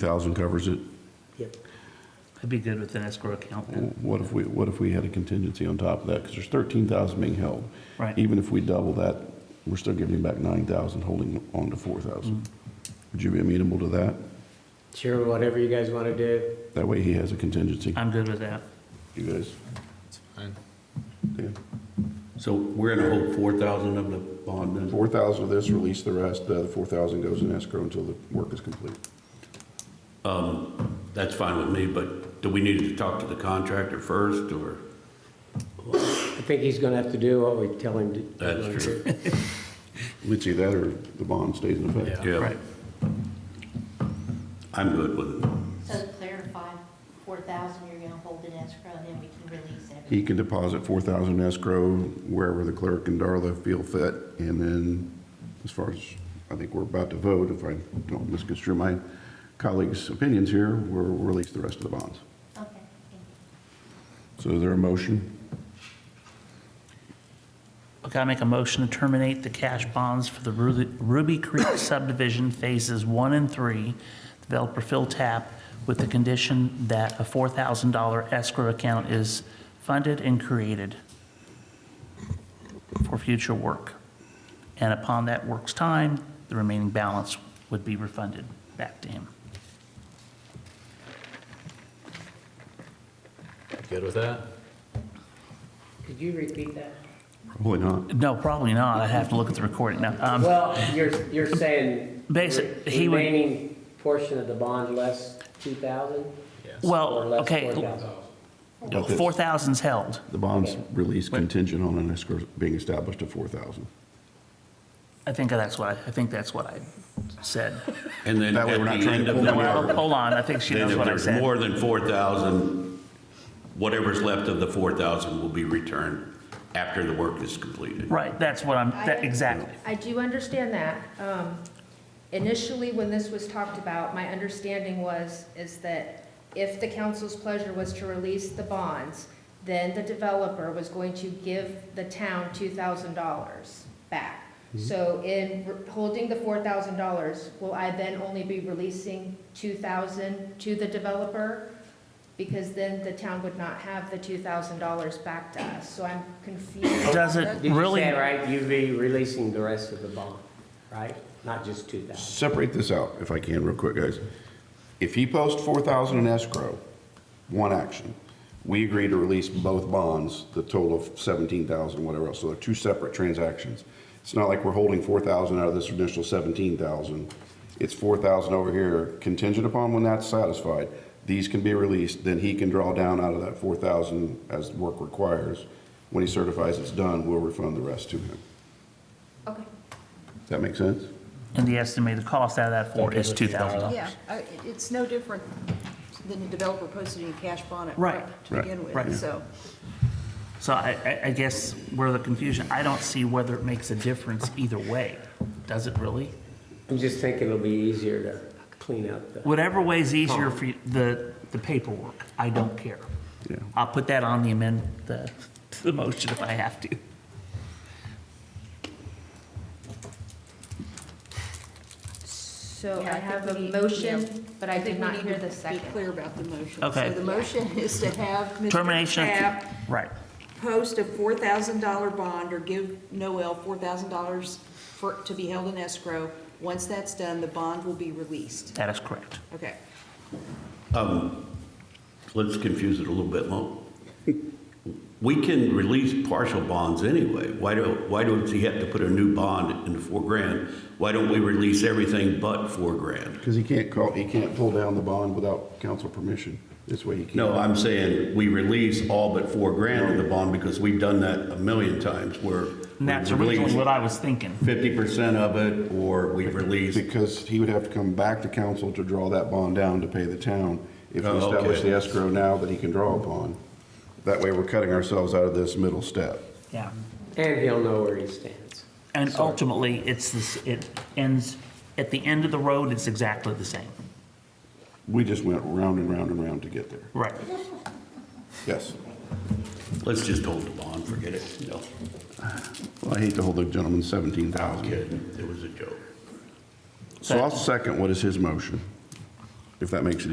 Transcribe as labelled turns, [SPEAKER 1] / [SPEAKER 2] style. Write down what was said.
[SPEAKER 1] thousand covers it.
[SPEAKER 2] Yep. I'd be good with an escrow account then.
[SPEAKER 1] What if we, what if we had a contingency on top of that? Because there's thirteen thousand being held.
[SPEAKER 2] Right.
[SPEAKER 1] Even if we double that, we're still giving him back nine thousand, holding on to four thousand. Would you be amenable to that?
[SPEAKER 3] Sure, whatever you guys want to do.
[SPEAKER 1] That way he has a contingency.
[SPEAKER 2] I'm good with that.
[SPEAKER 1] You guys? It's
[SPEAKER 4] So we're gonna hold four thousand of the bond
[SPEAKER 1] fine.
[SPEAKER 4] then?
[SPEAKER 1] Four thousand of this, release the rest, the other four thousand goes in escrow until the work is complete.
[SPEAKER 4] That's fine with me, but do we need to talk to the contractor first or?
[SPEAKER 3] I think he's going to have to do what we tell him to.
[SPEAKER 4] That's true.
[SPEAKER 1] We'd see that or the bond stays in effect.
[SPEAKER 4] Yeah.
[SPEAKER 2] Right.
[SPEAKER 4] I'm good with it.
[SPEAKER 5] So to clarify, four thousand, you're gonna hold in escrow, and then we can release everything.
[SPEAKER 1] He can deposit four thousand escrow wherever the clerk and Darla feel fit, and then, as far as, I think we're about to vote, if I don't misconstrue my colleagues' opinions here, we'll release the rest of the bonds.
[SPEAKER 5] Okay, thank you.
[SPEAKER 1] So is there a motion?
[SPEAKER 2] Okay, I make a motion to terminate the cash bonds for the Ruby Ruby Creek subdivision phases one and three, developer Phil Tap, with the condition that a $4,000 escrow account is funded and created for future work. And upon that work's time, the remaining balance would be refunded back to him.
[SPEAKER 6] Good with that?
[SPEAKER 3] Could you repeat that?
[SPEAKER 1] Probably not.
[SPEAKER 2] No, probably not. I'd have to look at the recording now. Um,
[SPEAKER 3] Well, you're, you're saying.
[SPEAKER 2] Basi-
[SPEAKER 3] the
[SPEAKER 2] he would-
[SPEAKER 3] Remaining portion of the bond less 2,000? Or
[SPEAKER 2] Well,
[SPEAKER 3] less
[SPEAKER 2] okay,
[SPEAKER 3] 4,000?
[SPEAKER 2] 4,000's held.
[SPEAKER 1] The bonds release contingent on an escrow being established at four thousand.
[SPEAKER 2] I think that's what, I I think that's what I said.
[SPEAKER 4] And then
[SPEAKER 1] That way
[SPEAKER 4] at
[SPEAKER 1] we're
[SPEAKER 4] the
[SPEAKER 1] not trying
[SPEAKER 4] end
[SPEAKER 1] to
[SPEAKER 4] of
[SPEAKER 1] pull
[SPEAKER 4] the
[SPEAKER 1] money out
[SPEAKER 4] year,
[SPEAKER 1] of
[SPEAKER 2] Well, hold on, I think she
[SPEAKER 4] then
[SPEAKER 2] knows
[SPEAKER 4] if
[SPEAKER 2] what I
[SPEAKER 4] there's
[SPEAKER 2] said.
[SPEAKER 4] more than four thousand, whatever's left of the four thousand will be returned after the work is completed.
[SPEAKER 2] Right, that's what I'm, that- exactly.
[SPEAKER 7] I do understand that. Um, Initially, when this was talked about, my understanding was, is that if the council's pleasure was to release the bonds, then the developer was going to give the town two thousand dollars back. So in re- holding the four thousand dollars, will I then only be releasing two thousand to the developer? Because then the town would not have the two thousand dollars back to us, so I'm confused.
[SPEAKER 2] Does it
[SPEAKER 3] Did you
[SPEAKER 2] really-
[SPEAKER 3] say, right, you'd be releasing the rest of the bond, right? Not just 2,000?
[SPEAKER 1] Separate this out, if I can, real quick, guys. If he posts four thousand in escrow, one action, we agree to release both bonds, the total of seventeen thousand, whatever else, so they're two separate transactions. It's not like we're holding four thousand out of this initial seventeen thousand. It's four thousand over here, contingent upon when that's satisfied, these can be released, then he can draw down out of that four thousand as work requires. When he certifies it's done, we'll refund the rest to him.
[SPEAKER 7] Okay.
[SPEAKER 1] Does that make sense?
[SPEAKER 2] And the estimated cost out of that four is $2,000.
[SPEAKER 8] Yeah, uh, it- it's no different than the developer posting a cash bond up
[SPEAKER 2] Right.
[SPEAKER 8] front to
[SPEAKER 1] Right.
[SPEAKER 8] begin
[SPEAKER 2] Right.
[SPEAKER 8] with, so.
[SPEAKER 2] So I, I- I guess where the confusion, I don't see whether it makes a difference either way. Does it really?
[SPEAKER 3] I'm just thinking it'll be easier to clean up the.
[SPEAKER 2] Whatever way's easier for you- the, the paperwork, I don't care.
[SPEAKER 1] Yeah.
[SPEAKER 2] I'll put that on the amend, the, the motion if I have to.
[SPEAKER 7] So
[SPEAKER 8] Yeah,
[SPEAKER 7] I
[SPEAKER 8] I
[SPEAKER 7] have
[SPEAKER 8] think
[SPEAKER 7] a
[SPEAKER 8] we need-
[SPEAKER 7] motion, but I
[SPEAKER 8] I think
[SPEAKER 7] did
[SPEAKER 8] we
[SPEAKER 7] not
[SPEAKER 8] need
[SPEAKER 7] hear
[SPEAKER 8] to
[SPEAKER 7] the
[SPEAKER 8] Be
[SPEAKER 7] second.
[SPEAKER 8] clear about the motion.
[SPEAKER 2] Okay.
[SPEAKER 8] So the motion is to have Mr.
[SPEAKER 2] Termination, of-
[SPEAKER 8] Tapp
[SPEAKER 2] right.
[SPEAKER 8] post a $4,000 bond or give Noel $4,000 for, to be held in escrow. Once that's done, the bond will be released.
[SPEAKER 2] That is correct.
[SPEAKER 8] Okay.
[SPEAKER 4] Let's confuse it a little bit more. We can release partial bonds anyway. Why do, why does he have to put a new bond in the four grand? Why don't we release everything but four grand?
[SPEAKER 1] Because he can't call, he can't pull down the bond without council permission. This way he can't.
[SPEAKER 4] No, I'm saying we release all but four grand of the bond because we've done that a million times where.
[SPEAKER 2] And that's originally what I was thinking.
[SPEAKER 4] Fifty percent of it, or we release,
[SPEAKER 1] Because he would have to come back to council to draw that bond down to pay the town if we
[SPEAKER 4] Oh, okay.
[SPEAKER 1] establish the escrow now that he can draw upon. That way we're cutting ourselves out of this middle step.
[SPEAKER 2] Yeah.
[SPEAKER 3] And he'll know where he stands.
[SPEAKER 2] And ultimately, it's this, it ends, at the end of the road, it's exactly the same.
[SPEAKER 1] We just went round and round and round to get there.
[SPEAKER 2] Right.
[SPEAKER 1] Yes.
[SPEAKER 4] let's just hold the bond, forget it. No,
[SPEAKER 1] Well, I hate to hold the gentleman seventeen thousand.
[SPEAKER 4] kidding, it was a joke.
[SPEAKER 1] So I'll second what is his motion. if that makes it